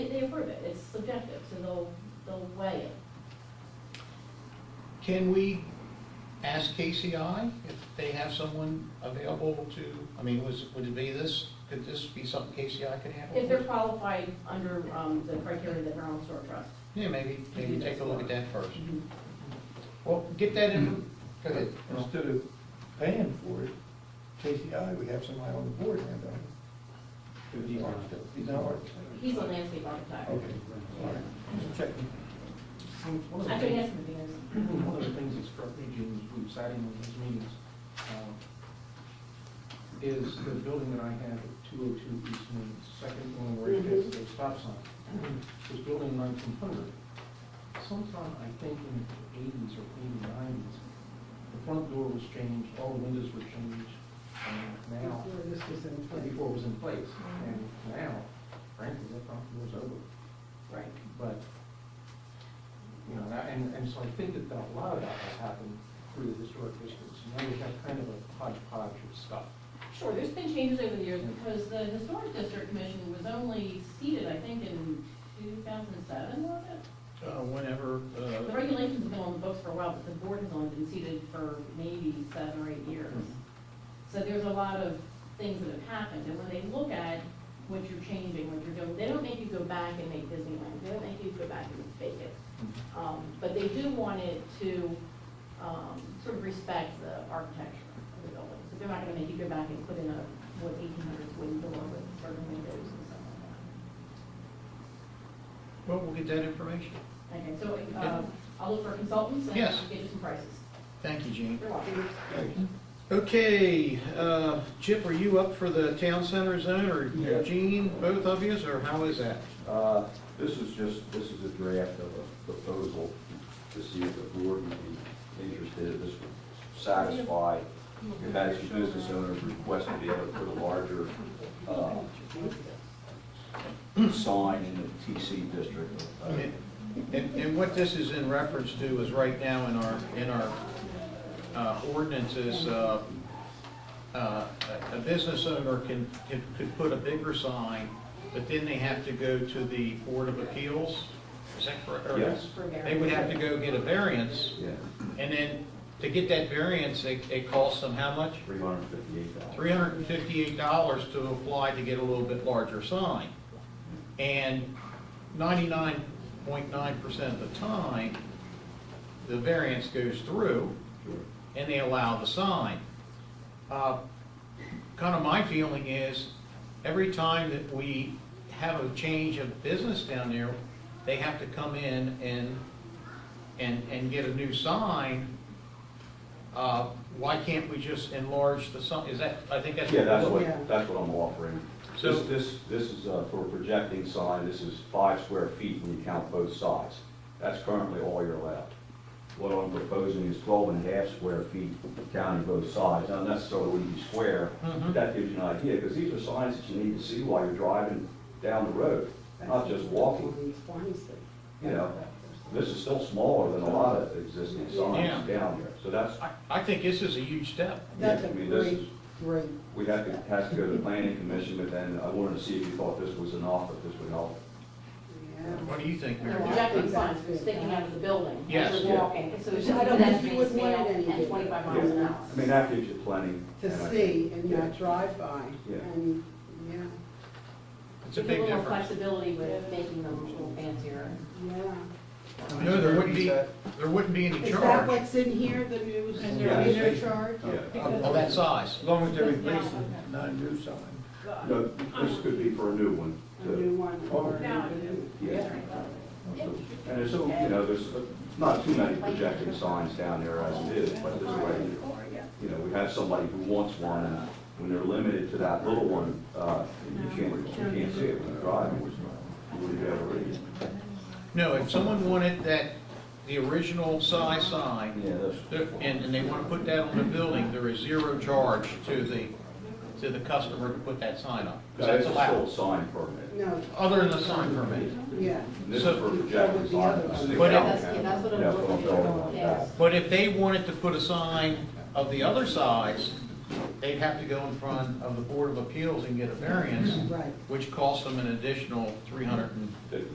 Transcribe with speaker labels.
Speaker 1: approve it, it's subjective, so they'll, they'll weigh it.
Speaker 2: Can we ask KCI if they have someone available to, I mean, was, would it be this, could this be something KCI could handle?
Speaker 1: If they're qualified under um, the criteria that Maryland Historic Trust.
Speaker 2: Yeah, maybe, maybe take a look at that first.
Speaker 1: Mhm.
Speaker 2: Well, get that in, go ahead.
Speaker 3: Instead of paying for it, KCI, we have somebody on the board hand out. Who's the architect? He's not an architect.
Speaker 1: He's a landscape architect.
Speaker 3: Okay, all right, just checking.
Speaker 4: One of the
Speaker 1: I could
Speaker 4: things-
Speaker 1: ask him if he knows.
Speaker 4: one of the things that struck me, Jim, as we were sat in on these meetings, um, is the building that I have at two oh two East Main, second one where it has the stop sign, was built in nineteen hundred. Sometime, I think in the eighties or eighty nineties, the front door was changed, all the windows were changed, and now,
Speaker 5: Before this was in place.
Speaker 4: before it was in place, and now, frankly, that front door's over
Speaker 1: Right.
Speaker 4: but, you know, and I- and, and so I think that a lot of that has happened through the historic districts. Now we have kind of a hodgepodge of stuff.
Speaker 1: Sure, there's been changes over the years because the Historic District Commission was only seated, I think, in 2007, was it?
Speaker 6: Uh, Whenever, uh,
Speaker 1: The regulations have been on the books for a while, but the board has only been seated for maybe seven or eight years. So there's a lot of things that have happened, and when they look at what you're changing, what you're doing, they don't make you go back and make Disneyland, they don't make you go back and fake it. Um, But they do want it to um, sort of respect the architecture of the building. So they're not gonna make you go back and put in a, what, eighteen hundreds wooden door with certain windows and stuff like that.
Speaker 2: Well, we'll get that information.
Speaker 1: Okay, so uh, I'll look for consultants and
Speaker 2: Yes.
Speaker 1: get you some prices.
Speaker 2: Thank you, Gene.
Speaker 1: You're welcome.
Speaker 2: Okay, uh, Chip, are you up for the town center zone,
Speaker 3: Yeah.
Speaker 2: or Gene, both of yous, or how is that?
Speaker 7: Uh, This is just, this is a draft of a proposal to see if the board would be interested, this would satisfy your Madison business owner's request to be able to put a larger uh, sign in the TC district. Uh,
Speaker 2: And, and what this is in reference to is right now in our, in our uh, ordinances, uh, uh, a a business owner can, can- could put a bigger sign, but then they have to go to the Board of Appeals, is that correct? Or-
Speaker 7: Yes.
Speaker 1: For variance.
Speaker 2: They would have to go get a variance,
Speaker 7: Yeah,
Speaker 2: and then to get that variance, it, it costs them how much?
Speaker 7: three hundred fifty-eight dollars.
Speaker 2: three hundred and fifty-eight dollars to apply to get a little bit larger sign. And ninety-nine point nine percent of the time, the variance goes through and they allow the sign. Kind of Uh, my feeling is, every time that we have a change of business down there, they have to come in and, and, and get a new sign. Uh, Why can't we just enlarge the sign, is that, I think that's.
Speaker 7: Yeah, that's
Speaker 5: Yeah.
Speaker 7: what, that's what I'm offering.
Speaker 2: So-
Speaker 7: This, this, this is uh, for a projecting sign, this is five square feet when you count both sides. That's currently all you're allowed. What I'm proposing is 12 and a half square feet counting both sides, not necessarily wouldn't be square,
Speaker 2: Mhm.
Speaker 7: but that gives you an idea, because these are signs that you need to see while you're driving down the road, not just walking. You know, this is still smaller than a lot of existing signs
Speaker 2: Yeah.
Speaker 7: down here, so that's,
Speaker 2: I, I think this is a huge step.
Speaker 5: That's a
Speaker 7: I mean, this
Speaker 5: great,
Speaker 7: is-
Speaker 5: great,
Speaker 7: we have to, has to go to the planning commission, but then I wanted to see if you thought this was enough, if this would help.
Speaker 5: yeah.
Speaker 2: What do you think,
Speaker 1: They're
Speaker 2: Mary? Jo?
Speaker 1: projecting signs, they're sticking out of the building.
Speaker 2: Yes.
Speaker 1: As you're walking, so it's just
Speaker 5: I
Speaker 1: a
Speaker 5: don't think you
Speaker 1: pedestrian
Speaker 5: would want it
Speaker 1: scale
Speaker 5: any
Speaker 1: and twenty-five miles an
Speaker 7: Yeah.
Speaker 1: hour.
Speaker 7: I mean, that gives you plenty. and I
Speaker 5: To
Speaker 7: think-
Speaker 5: see and
Speaker 7: Yeah.
Speaker 5: not drive by,
Speaker 7: Yeah.
Speaker 5: and, yeah,
Speaker 2: It's a big
Speaker 1: little more
Speaker 2: difference.
Speaker 1: flexibility with making them a little fancier.
Speaker 5: yeah.
Speaker 2: No, there wouldn't be, there wouldn't be any
Speaker 5: Is that
Speaker 2: charge
Speaker 5: what's in here, that it was,
Speaker 3: Is
Speaker 7: there any
Speaker 5: no charge?
Speaker 7: Yeah.
Speaker 2: of that size.
Speaker 3: As long as they're replacing, not a new sign.
Speaker 7: No, this could be for a new one.
Speaker 5: A
Speaker 7: too.
Speaker 5: new one, or,
Speaker 1: No.
Speaker 7: Yeah. And it's, so, you know, there's uh, not too many projecting signs down there as it is, but this way, you know, we have somebody who wants one, and when they're limited to that little one, uh, you can't, you can't see it when you're driving. You wouldn't be able to read it.
Speaker 2: No, if someone wanted that, the original size sign,
Speaker 7: Yeah, that's.
Speaker 2: there- and, and they want to put that on the building, there is zero charge to the, to the customer to put that sign up. 'Cause
Speaker 7: That
Speaker 2: That's
Speaker 7: is a sole
Speaker 2: allowed,
Speaker 7: sign permit.
Speaker 5: no,
Speaker 2: other than the sign permit.
Speaker 5: yeah.
Speaker 7: This is for projecting signs.
Speaker 2: But
Speaker 1: Yeah,
Speaker 2: it-
Speaker 1: that's what I'm
Speaker 7: Yeah, for
Speaker 1: looking
Speaker 7: building
Speaker 1: for,
Speaker 7: like
Speaker 1: yes.
Speaker 7: that.
Speaker 2: But if they wanted to put a sign of the other size, they'd have to go in front of the Board of Appeals and get a variance,
Speaker 5: Right.
Speaker 2: which costs them an additional three hundred and